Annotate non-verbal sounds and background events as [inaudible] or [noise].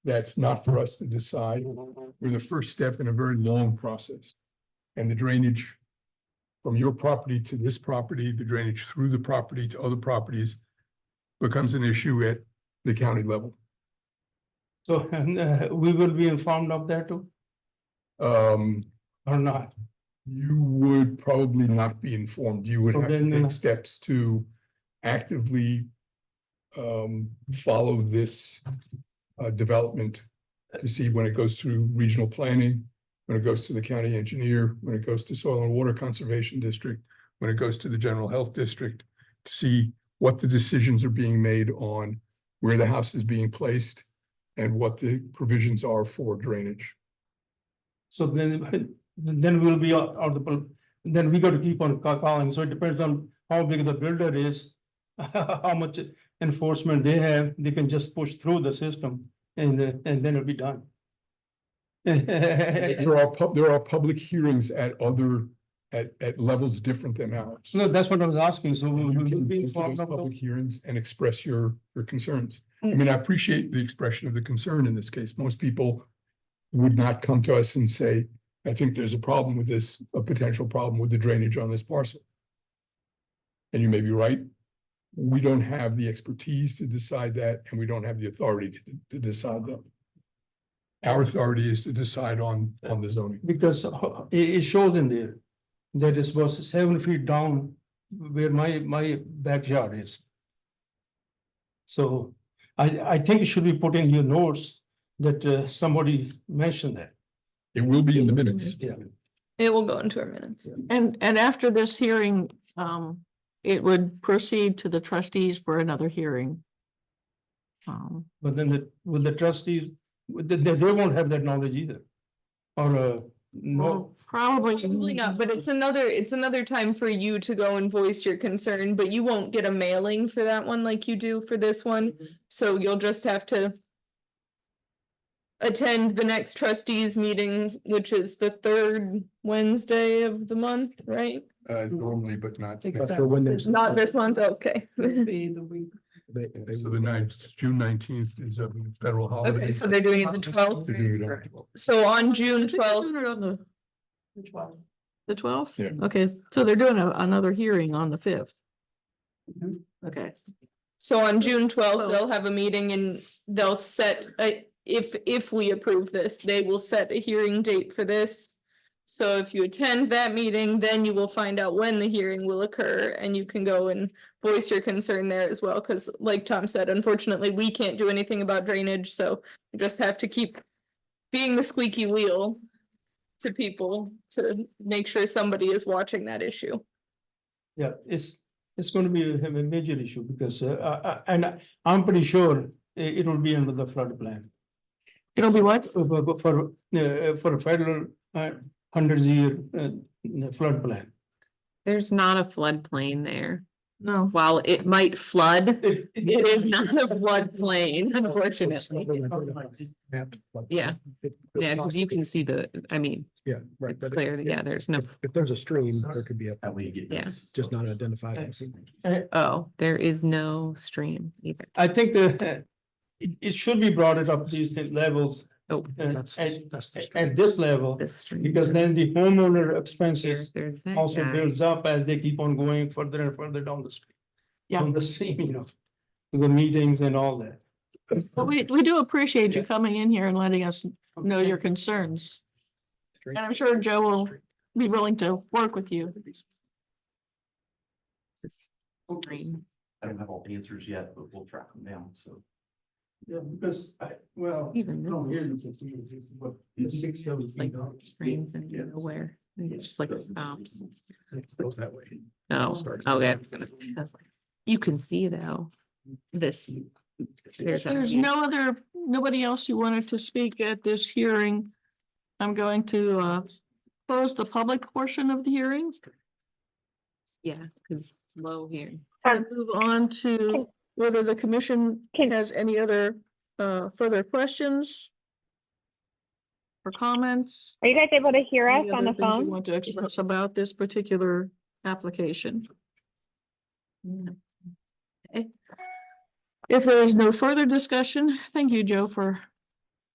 that's not for us to decide. We're the first step in a very long process. And the drainage from your property to this property, the drainage through the property to other properties becomes an issue at the county level. So [laughs] and uh, we will be informed of that too Um, or not? you would probably not be informed. You would So have to then, uh, take steps to actively um, follow this uh, development to see when it goes through regional planning, when it goes to the county engineer, when it goes to soil and water conservation district, when it goes to the general health district, to see what the decisions are being made on where the house is being placed and what the provisions are for drainage. So then, [laughs] then we'll be out out the, pol- then we got to keep on ca- calling. So it depends on how big the builder is. [laughs] How much enforcement they have, they can just push through the system and uh, and then it'll be done. [laughs] There are pub, there are public hearings at other, at, at levels different than ours. No, that's what I was asking. So we And You will can be go to informed those of public those. hearings and express your, your concerns. I Mm. mean, I appreciate the expression of the concern in this case. Most people would not come to us and say, I think there's a problem with this, a potential problem with the drainage on this parcel. And you may be right. We don't have the expertise to decide that, and we don't have the authority to, to decide that. Our authority is to decide on, on the zoning. Because ho- it, it shows in there, that it was seven feet down where my, my backyard is. So I, I think it should be put in your notes that uh, somebody mentioned that. It will be in the minutes. Yeah. It will go into our minutes. And, and after this hearing, um, it would proceed to the trustees for another hearing. Um, But then the, will the trustees, they, they they won't have that knowledge either. Or, uh, no, well, probably. Probably not, but it's another, it's another time for you to go and voice your concern, but you won't get a mailing for that one like you do for this one. So you'll just have to attend the next trustees meeting, which is the third Wednesday of the month, right? Uh, normally, but not. Except So when this- Not this month, okay. would Be the week. They, they So will the ninth, June nineteenth is a federal holiday. Okay, so they're doing it the twelfth. They're doing it on the 12th. So on I June think they're twelfth, doing it on the- which one? The twelfth? Yeah. Okay, so they're doing a- another hearing on the fifth. Mhm. Okay, So on June twelfth, they'll Twelfth. have a meeting and they'll set, a if, if we approve this, they will set a hearing date for this. So if you attend that meeting, then you will find out when the hearing will occur and you can go and voice your concern there as well. Cause like Tom said, unfortunately, we can't do anything about drainage, so we just have to keep being the squeaky wheel to people to make sure somebody is watching that issue. yeah, it's, it's gonna be a a major issue because, uh, uh, and I'm pretty sure uh, it, it will be under the flood plan. it'll be what? for- for for uh, for a federal uh hundreds year uh flood plan. There's not a floodplain there. No, While it might flood, it is not a floodplain, It's unfortunately. not really identified as map, but Yeah. it- it's Yeah, because you can see the, I mean, Yeah, right. it's but clear, if- that yeah, there's no, If if there's a stream, there could be a, yeah. just not identified. Oh, there is no stream either. Uh, I think the it it should be brought it up these thi- levels Oh, uh, That's, at that's. the stream. at this level. this stream. Because then the homeowner There's, expenses there's that also guy. builds up as they keep on going further and further down the street. Yeah. Down the [laughs] stream, you know, the meetings and all that. but we, we do appreciate you coming in here and letting us know your concerns. Stream. And I'm sure Joe will be willing to work with you. This stream. I don't have all the answers yet, but we'll track them down, so. Yeah, because I, well. Even this down here one you can see it, it's what, it's six, seven It's like feet down. drains into Yeah. nowhere. It's just like Oh, stops. It Goes that way. No, Starts- okay. I was gonna- I was like, You can see though, this. There's. a- There's no other, nobody else who wanted to speak at this hearing. I'm going to uh close the public portion of the hearing Yeah, because it's low here. Um, and move on to whether the commission has any other uh further questions or comments. Are you guys able to hear us Any on other the things you phone? Want to express about this particular application? Yeah. If there is no further discussion, thank you, Joe, for